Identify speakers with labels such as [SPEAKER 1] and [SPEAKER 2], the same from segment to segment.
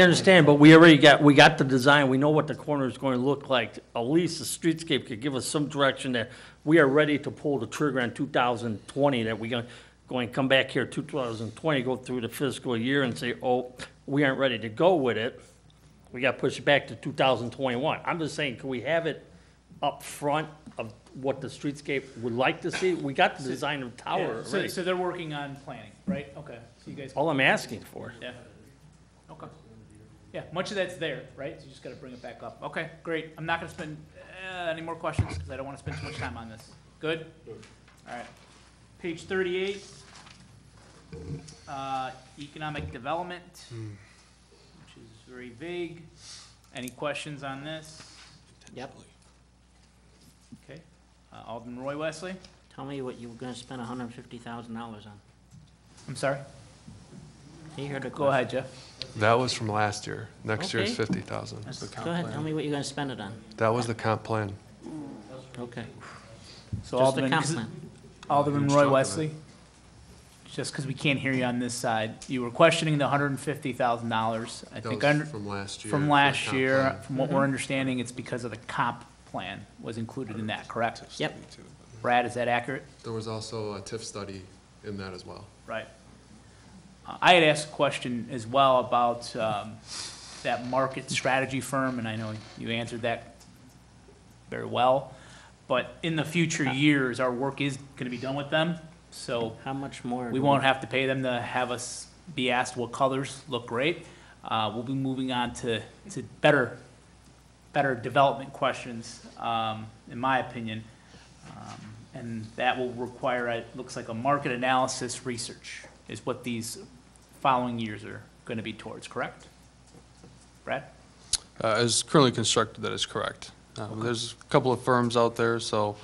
[SPEAKER 1] I understand, but we already got, we got the design, we know what the corner is going to look like. At least the streetscape could give us some direction that we are ready to pull the trigger on 2020, that we going, going, to come back here 2020, go through the fiscal year and say, oh, we aren't ready to go with it. We got to push it back to 2021. I'm just saying, can we have it up front of what the streetscape would like to see? We got the design of the tower
[SPEAKER 2] Yeah, so-
[SPEAKER 1] already.
[SPEAKER 2] So they're working on planning, right? Okay, so you guys,
[SPEAKER 1] All I'm asking for.
[SPEAKER 2] yeah. Okay. Yeah, much of that's there, right? So you just gotta bring it back up. Okay, great. I'm not gonna spend, uh, any more questions, because I don't wanna spend too much time on this. Good? All right. Page thirty-eight. Uh, economic development, which is very vague. Any questions on this?
[SPEAKER 3] Yep,
[SPEAKER 2] Okay. Uh, Alderman Roy Wesley?
[SPEAKER 3] tell me what you were gonna spend hundred and fifty thousand dollars on.
[SPEAKER 2] I'm sorry?
[SPEAKER 3] He heard a
[SPEAKER 2] Go
[SPEAKER 3] question.
[SPEAKER 2] ahead, Jeff.
[SPEAKER 4] That was from last year. Next year's
[SPEAKER 3] Okay.
[SPEAKER 4] fifty thousand.
[SPEAKER 3] Go ahead, tell me what you're gonna spend it on.
[SPEAKER 4] That was the comp plan.
[SPEAKER 3] Okay,
[SPEAKER 2] So
[SPEAKER 3] just a
[SPEAKER 2] Alderman- 'cause-
[SPEAKER 3] compliment.
[SPEAKER 2] Alderman
[SPEAKER 4] Who's
[SPEAKER 2] Roy
[SPEAKER 4] talking?
[SPEAKER 2] Wesley, just because we can't hear you on this side, you were questioning the hundred and fifty thousand dollars. I
[SPEAKER 4] That
[SPEAKER 2] think
[SPEAKER 4] was
[SPEAKER 2] under-
[SPEAKER 4] from last year. for
[SPEAKER 2] from
[SPEAKER 4] the
[SPEAKER 2] last
[SPEAKER 4] comp
[SPEAKER 2] year,
[SPEAKER 4] plan.
[SPEAKER 2] from what we're understanding, it's because of the comp plan was included in that, correct?
[SPEAKER 3] Yep,
[SPEAKER 2] Brad, is that accurate?
[SPEAKER 4] There was also a TIF study in that as well.
[SPEAKER 2] Right. Uh, I had asked a question as well about um, that market strategy firm, and I know you answered that very well. But in the future years, our work is going to be done with them, so
[SPEAKER 3] how much more?
[SPEAKER 2] We won't have to pay them to have us be asked what colors look great. Uh, we'll be moving on to, to better, better development questions, um, in my opinion. Um, And that will require, it looks like a market analysis research is what these following years are gonna be towards, correct? Brad?
[SPEAKER 5] Uh, As currently constructed, that is correct. Um, There's a couple of firms out there, so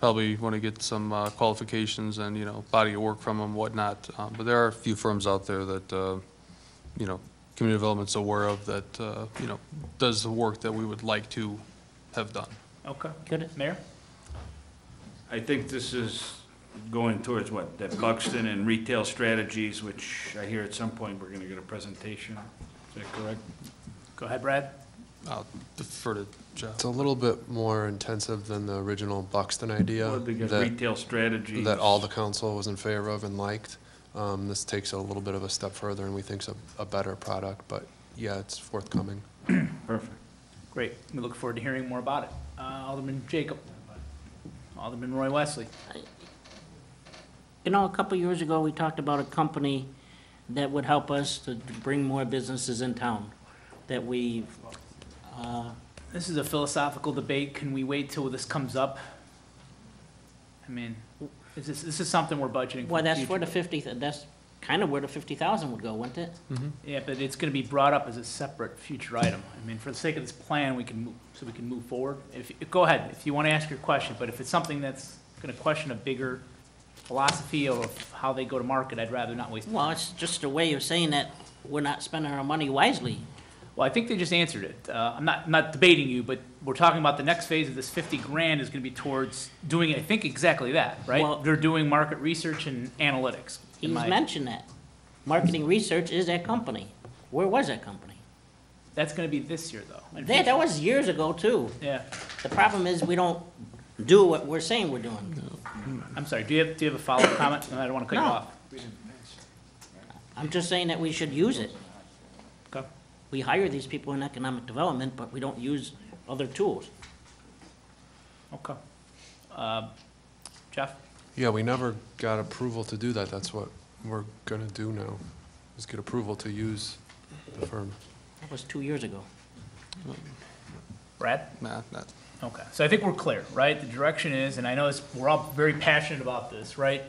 [SPEAKER 5] probably want to get some uh, qualifications and, you know, body of work from them, whatnot. Um, But there are a few firms out there that, uh, you know, community development's aware of that, uh, you know, does the work that we would like to have done.
[SPEAKER 2] Okay.
[SPEAKER 3] Good.
[SPEAKER 2] Mayor?
[SPEAKER 6] I think this is going towards what, that Buxton and retail strategies, which I hear at some point we're gonna get a presentation. Is that correct?
[SPEAKER 2] Go ahead, Brad.
[SPEAKER 5] I'll defer to Jeff.
[SPEAKER 4] It's a little bit more intensive than the original Buxton idea
[SPEAKER 6] Well, Because
[SPEAKER 4] that,
[SPEAKER 6] retail strategies.
[SPEAKER 4] that all the council was in favor of and liked. Um, this takes a little bit of a step further and we think's a, a better product, but yeah, it's forthcoming.
[SPEAKER 6] Perfect.
[SPEAKER 2] Great. We look forward to hearing more about it. Uh, Alderman Jacob? Alderman Roy Wesley?
[SPEAKER 3] You know, a couple years ago, we talked about a company that would help us to bring more businesses in town, that we, uh,
[SPEAKER 2] This is a philosophical debate. Can we wait till this comes up? I mean, is this, this is something we're budgeting for
[SPEAKER 3] well,
[SPEAKER 2] the
[SPEAKER 3] that's where
[SPEAKER 2] future.
[SPEAKER 3] the fifty, that's kind of where the fifty thousand would go, wouldn't it?
[SPEAKER 2] Yeah, but it's gonna be brought up as a separate future item. I mean, for the sake of this plan, we can move, so we can move forward. If, go ahead, if you wanna ask your question, but if it's something that's gonna question a bigger philosophy of how they go to market, I'd rather not waste.
[SPEAKER 3] Well, it's just a way of saying that we're not spending our money wisely.
[SPEAKER 2] Well, I think they just answered it. Uh, I'm not, I'm not debating you, but we're talking about the next phase of this fifty grand is gonna be towards doing, I think, exactly that,
[SPEAKER 3] Well-
[SPEAKER 2] right? They're doing market research and analytics. in
[SPEAKER 3] He's
[SPEAKER 2] my-
[SPEAKER 3] mentioned that. Marketing research is that company. Where was that company?
[SPEAKER 2] That's gonna be this year, though. in
[SPEAKER 3] That,
[SPEAKER 2] future.
[SPEAKER 3] that was years ago, too.
[SPEAKER 2] Yeah,
[SPEAKER 3] The problem is, we don't do what we're saying we're doing.
[SPEAKER 2] I'm sorry, do you have, do you have a follow-up comment? No, I don't wanna cut you
[SPEAKER 3] No.
[SPEAKER 2] off.
[SPEAKER 3] I'm just saying that we should use it.
[SPEAKER 2] Okay.
[SPEAKER 3] We hire these people in economic development, but we don't use other tools.
[SPEAKER 2] Okay. Uh, Jeff?
[SPEAKER 4] Yeah, we never got approval to do that. That's what we're gonna do now, is get approval to use the firm.
[SPEAKER 3] That was two years ago.
[SPEAKER 2] Brad?
[SPEAKER 5] Nah, not,
[SPEAKER 2] Okay, so I think we're clear, right? The direction is, and I know it's, we're all very passionate about this, right?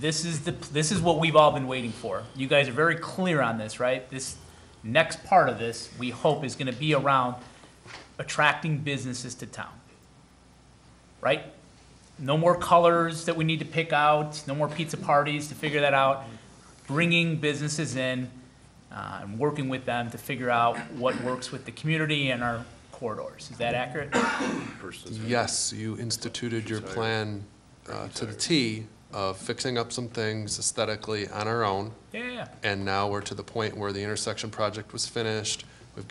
[SPEAKER 2] This is the, this is what we've all been waiting for. You guys are very clear on this, right? This next part of this, we hope is gonna be around attracting businesses to town. Right? No more colors that we need to pick out, no more pizza parties to figure that out. Bringing businesses in, uh, and working with them to figure out what works with the community and our corridors. Is that accurate?
[SPEAKER 4] Yes, you instituted your plan uh, to the T of fixing up some things aesthetically on our own,
[SPEAKER 2] Yeah, yeah, yeah.
[SPEAKER 4] and now we're to the point where the intersection project was finished,